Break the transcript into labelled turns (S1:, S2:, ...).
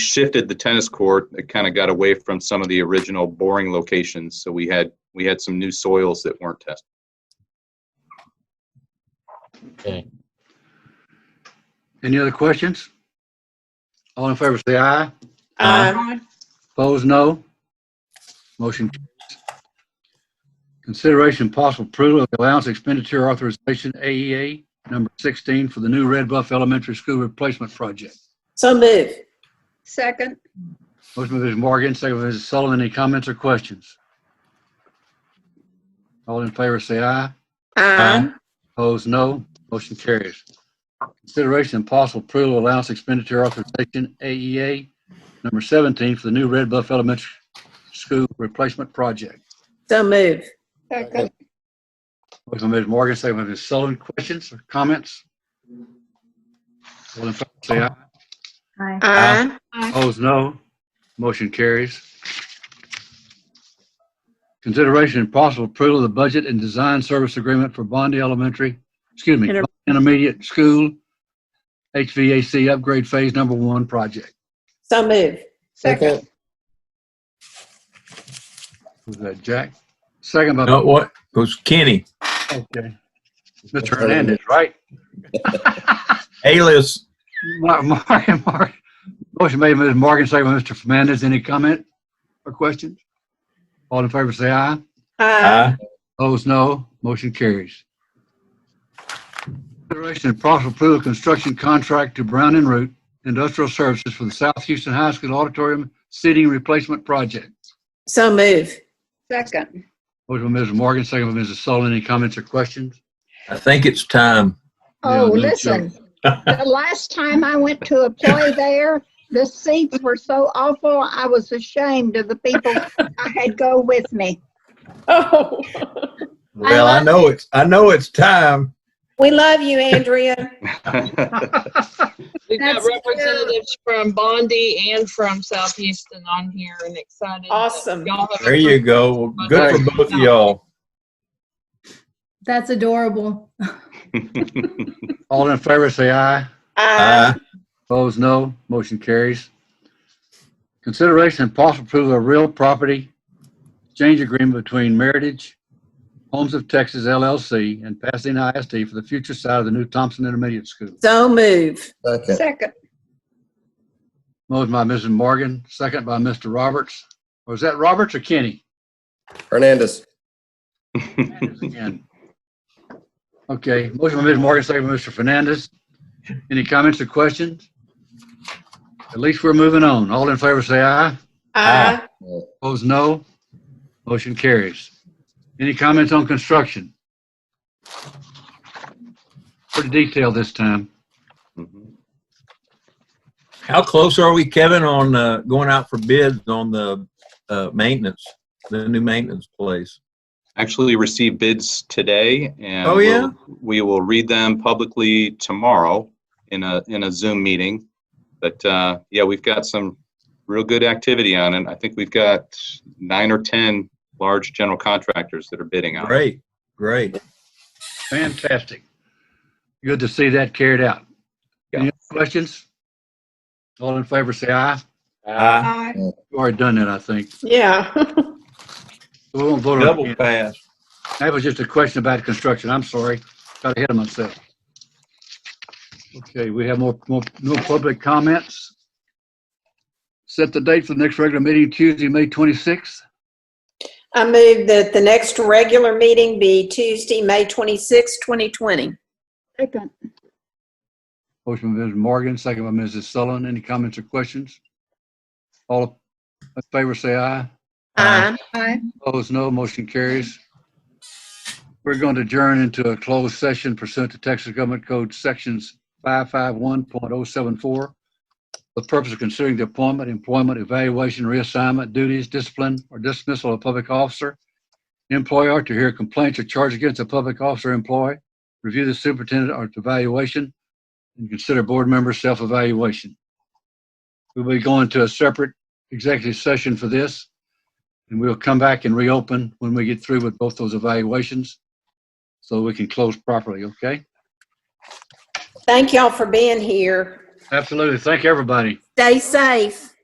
S1: shifted the tennis court, it kind of got away from some of the original boring locations. So we had we had some new soils that weren't tested.
S2: Okay.
S3: Any other questions? All in favor, say aye.
S4: Aye.
S3: Opposed, no. Motion carries. Consideration and possible approval of the allowance expenditure authorization AEA number 16 for the new Red Bluff Elementary School Replacement Project.
S4: So move.
S5: Second,
S3: Motion by Mrs. Morgan, second by Mrs. Sullivan. Any comments or questions? All in favor, say aye.
S4: Aye.
S3: Opposed, no. Motion carries. Consideration and possible approval of allowance expenditure authorization AEA number 17 for the new Red Bluff Elementary School Replacement Project.
S4: So move.
S5: second,
S3: Motion by Ms. Morgan, second by Ms. Sullivan. Questions or comments? All in favor, say aye.
S4: Aye.
S3: Opposed, no. Motion carries. Consideration and possible approval of the budget and design service agreement for Bondi Elementary, excuse me,
S4: Inter-
S3: Bondi Intermediate School HVAC Upgrade Phase Number One Project.
S4: So move.
S5: second,
S3: Was that Jack? Second by,
S2: No, what? It was Kenny.
S3: okay. Mr. Hernandez, right?
S2: Alias.
S3: Mark, Mark, Mark. Motion made by Ms. Morgan, second by Mr. Fernandez. Any comment or questions? All in favor, say aye.
S4: Uh, Aye.
S3: Opposed, no. Motion carries. Consideration and possible approval of construction contract to Brown and Root Industrial Services for the South Houston High School Auditorium Seating Replacement Project.
S4: So move.
S5: second.
S3: Motion by Mrs. Morgan, second by Mrs. Sullivan. Any comments or questions?
S2: I think it's time.
S3: Yeah,
S5: Oh,
S3: no
S5: listen, the last time I went to a play there, the seats were so awful, I was ashamed of the people I had go with me.
S4: Oh.
S2: Well, I know it's, I know it's time.
S4: We love you, Andrea.
S6: We've got
S5: That's true.
S6: representatives from Bondi and from South Houston on here and excited. that
S4: Awesome.
S6: y'all have
S2: There you go. Good for both of y'all.
S7: That's adorable.
S3: All in favor, say aye.
S4: Uh, Aye.
S3: Opposed, no. Motion carries. Consideration and possible approval of real property exchange agreement between Meritage Homes of Texas LLC and Pasadena ISD for the future site of the new Thompson Intermediate School.
S4: So move.
S5: Second,
S3: Motion by Mrs. Morgan, second by Mr. Roberts. Or is that Roberts or Kenny?
S8: Hernandez.
S3: Again. Okay, motion by Mrs. Morgan, second by Mr. Fernandez. Any comments or questions? At least we're moving on. All in favor, say aye.
S4: Aye.
S3: Opposed, no. Motion carries. Any comments on construction? Pretty detailed this time.
S1: Mm-hmm.
S2: How close are we, Kevin, on uh, going out for bids on the uh, maintenance, the new maintenance place?
S1: Actually, received bids today, and
S2: Oh,
S1: we'll-
S2: yeah?
S1: we will read them publicly tomorrow in a in a Zoom meeting. But uh, yeah, we've got some real good activity on it. I think we've got nine or ten large general contractors that are bidding on it.
S2: Great, great.
S3: Fantastic. Good to see that carried out. Any
S1: Yeah.
S3: other questions? All in favor, say aye.
S2: Aye.
S5: aye,
S3: We've already done that, I think.
S4: Yeah.
S3: We won't vote on
S2: Double
S3: it.
S2: pass.
S3: That was just a question about construction. I'm sorry. Got ahead of myself. Okay, we have more, more, no public comments. Set the date for the next regular meeting Tuesday, May 26th.
S4: I move that the next regular meeting be Tuesday, May 26, 2020.
S5: second,
S3: Motion by Mrs. Morgan, second by Mrs. Sullivan. Any comments or questions? All in favor, say aye.
S4: Aye.
S5: aye,
S3: Opposed, no. Motion carries. We're going to adjourn into a closed session pursuant to Texas Government Code Sections 551.074 the purpose of considering the appointment, employment, evaluation, reassignment, duties, discipline, or dismissal of a public officer, employer to hear complaints or charge against a public officer or employee, review the superintendent or its evaluation, and consider board member self-evaluation. We'll be going to a separate executive session for this. And we'll come back and reopen when we get through with both those evaluations so we can close properly, okay?
S4: Thank y'all for being here.
S3: Absolutely. Thank everybody.
S4: Stay safe.